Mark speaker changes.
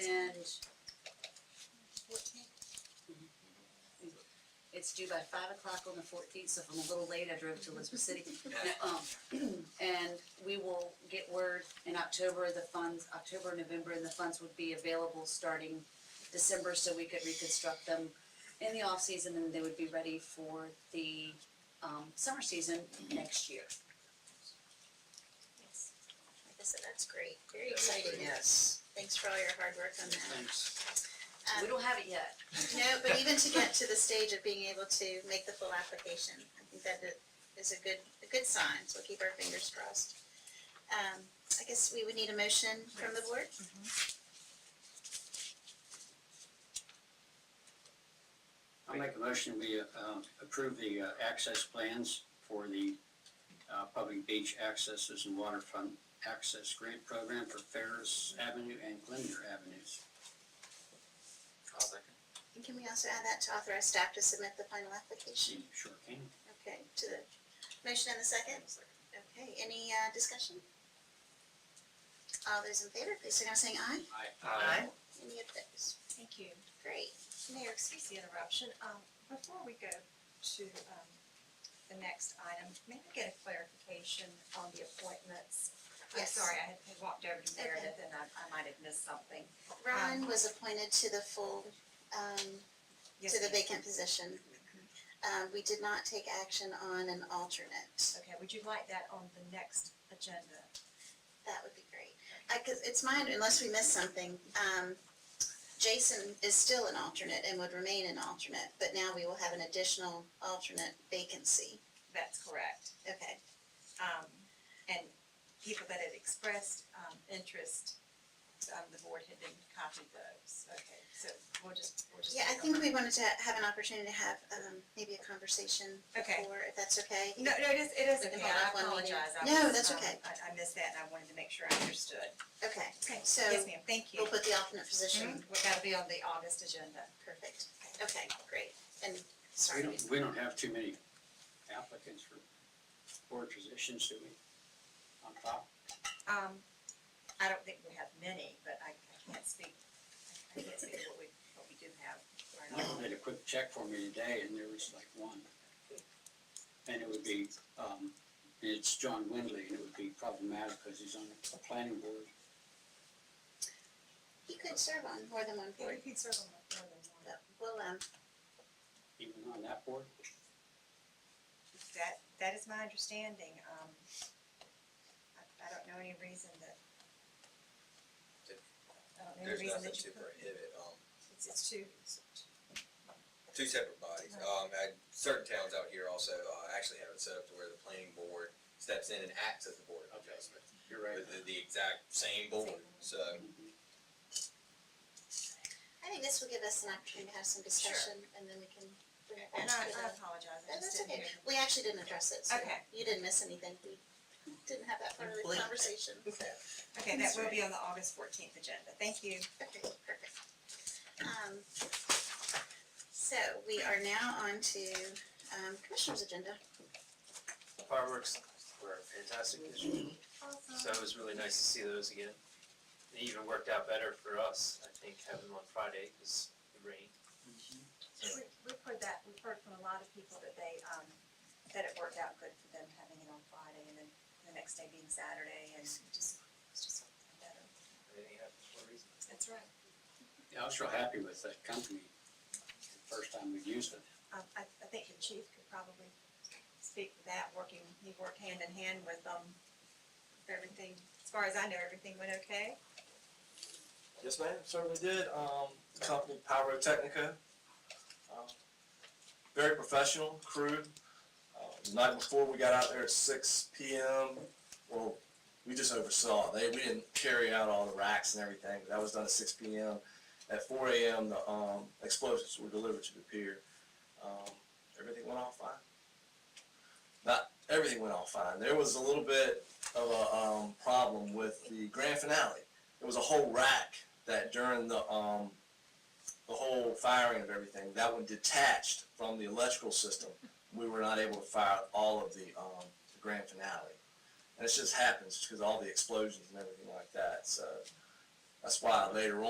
Speaker 1: and it's due by five o'clock on the fourteenth, so if I'm a little late, I drove to Elizabeth City. No, um, And we will get word in October, the funds, October, November, and the funds would be available starting December, so we could reconstruct them in the off-season, and they would be ready for the, um, summer season next year.
Speaker 2: Yes. Listen, that's great, very exciting,
Speaker 3: Yes.
Speaker 2: thanks for all your hard work on that.
Speaker 3: Thanks.
Speaker 2: Um,
Speaker 1: We don't have it yet.
Speaker 2: No, but even to get to the stage of being able to make the full application, I think that it is a good, a good sign, so we'll keep our fingers crossed. Um, I guess we would need a motion from the board.
Speaker 3: I'll make a motion, we um, approve the uh, access plans for the uh, public beach accesses and waterfront access grant program for Ferris Avenue and Glendale Avenues.
Speaker 4: I'll second.
Speaker 2: And can we also add that to authorize staff to submit the final application?
Speaker 3: See, sure can.
Speaker 2: Okay, to the motion and the second? Okay, any, uh, discussion? All those in favor, please signal by saying aye.
Speaker 4: Aye.
Speaker 2: Any opposed?
Speaker 5: Thank you.
Speaker 2: Great. Mayor, excuse
Speaker 5: Excuse the interruption. Um, before we go to, um, the next item, may I get a clarification on the appointments? I'm
Speaker 2: Yes.
Speaker 5: sorry, I had walked over to
Speaker 2: Okay.
Speaker 5: Meredith and I, I might have missed something.
Speaker 2: Ron
Speaker 5: Um,
Speaker 2: was appointed to the full, um,
Speaker 5: Yes,
Speaker 2: to the
Speaker 5: ma'am.
Speaker 2: vacant position. Um, we did not take action on an alternate.
Speaker 5: Okay, would you like that on the next agenda?
Speaker 2: That would be great. I, cause it's mine, unless we missed something, um, Jason is still an alternate and would remain an alternate, but now we will have an additional alternate vacancy.
Speaker 5: That's correct.
Speaker 2: Okay,
Speaker 5: Um, and people that had expressed, um, interest, um, the board had been copied those. Okay, so we'll just, we'll just.
Speaker 2: yeah, I
Speaker 5: vote on
Speaker 2: think
Speaker 5: that.
Speaker 2: we wanted to have an opportunity to have, um, maybe a conversation
Speaker 5: Okay.
Speaker 2: before, if that's okay.
Speaker 5: No, no, it is, it is
Speaker 2: It
Speaker 5: okay,
Speaker 2: involved
Speaker 5: I
Speaker 2: one meeting.
Speaker 5: apologize, I was.
Speaker 2: No, that's
Speaker 5: um,
Speaker 2: okay.
Speaker 5: I, I missed that and I wanted to make sure I understood.
Speaker 2: Okay,
Speaker 5: Okay,
Speaker 2: so
Speaker 5: Yes, ma'am, thank you.
Speaker 2: we'll put the alternate position,
Speaker 5: Mhm, well, That'll be on the August agenda.
Speaker 2: perfect. Okay, great, and
Speaker 3: We
Speaker 2: sorry.
Speaker 3: don't, we don't have too many applicants for board positions, do we? On top?
Speaker 5: Um, I don't think we have many, but I, I can't speak, I can't speak to what we, what we do have. right now.
Speaker 3: Did a quick check for me today and there was like one. And it would be, um, it's John Windley and it would be problematic because he's on the planning board.
Speaker 2: He could serve on more than one
Speaker 5: Yeah,
Speaker 2: board,
Speaker 5: we can serve on more than one.
Speaker 2: but we'll, um,
Speaker 3: even on that board.
Speaker 5: That, that is my understanding, um, I, I don't know any reason that. I don't know any
Speaker 4: There's
Speaker 5: reason
Speaker 4: nothing
Speaker 5: that
Speaker 4: to
Speaker 5: you could,
Speaker 4: prohibit, um,
Speaker 5: it's, it's too,
Speaker 4: two separate bodies. Um, and certain towns out here also, uh, actually have it set up to where the planning board steps in and acts as the board of adjustment.
Speaker 3: You're
Speaker 4: But the, the exact same board, so.
Speaker 2: I think this will give us an opportunity to have some discussion, and then we can bring it back
Speaker 5: and I,
Speaker 2: to the.
Speaker 5: I apologize,
Speaker 2: No,
Speaker 5: I just
Speaker 2: that's okay,
Speaker 5: didn't hear.
Speaker 2: we actually didn't address it, so
Speaker 5: Okay.
Speaker 2: you didn't miss anything, we didn't have that part of the
Speaker 4: Blink.
Speaker 2: conversation, so,
Speaker 5: Okay, that will be on the August fourteenth agenda, thank you.
Speaker 2: okay, perfect. Um, so, we are now on to, um, commissioner's agenda.
Speaker 6: Fireworks were fantastic this year, so it was really nice to see those again. It even worked out better for us, I think, having them on Friday because it rained.
Speaker 5: We- We've heard that, we've heard from a lot of people that they, um, that it worked out good for them having it on Friday and then the next day being Saturday and it just, it's just something better.
Speaker 6: Everything happened for a reason.
Speaker 5: That's right.
Speaker 3: Yeah, I was real happy with that company, the first time we used it.
Speaker 5: Um, I, I think the chief could probably speak to that, working, he worked hand in hand with, um, everything, as far as I know, everything went okay.
Speaker 6: Yes, ma'am, certainly did. Um, the company Pyrotechnica. um, Very professional crew. Uh, the Night before, we got out there at six PM. Well, we just oversaw. They, we didn't carry out all the racks and everything, but that was done at six PM. At four AM, the, um, explosives were delivered to the pier. Um, everything went off fine. Not, everything went off fine. There was a little bit of a, um, problem with the grand finale it was a whole rack that during the um the whole firing of everything that one detached from the electrical system we were not able to fire all of the um the grand finale and it just happens because all the explosions and everything like that so that's why later on